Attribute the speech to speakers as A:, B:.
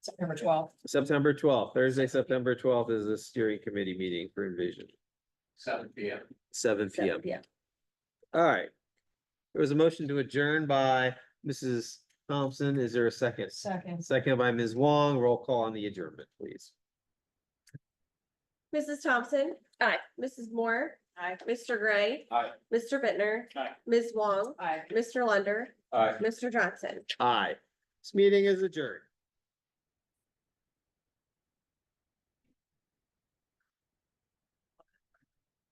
A: September twelfth.
B: September twelfth, Thursday, September twelfth is the steering committee meeting for Envision,
C: seven P M.
B: seven P M. All right. There was a motion to adjourn by Mrs. Thompson. Is there a second?
A: Second.
B: Second by Ms. Wong. Roll call on the adjournment, please.
D: Mrs. Thompson. Aye. Mrs. Moore.
A: Aye.
D: Mr. Gray.
C: Aye.
D: Mr. Bittner,
C: Aye.
D: Ms. Wong.
A: Aye.
D: Mr. Lunder.
C: Aye.
D: Mr. Johnson.
B: Aye. This meeting is adjourned.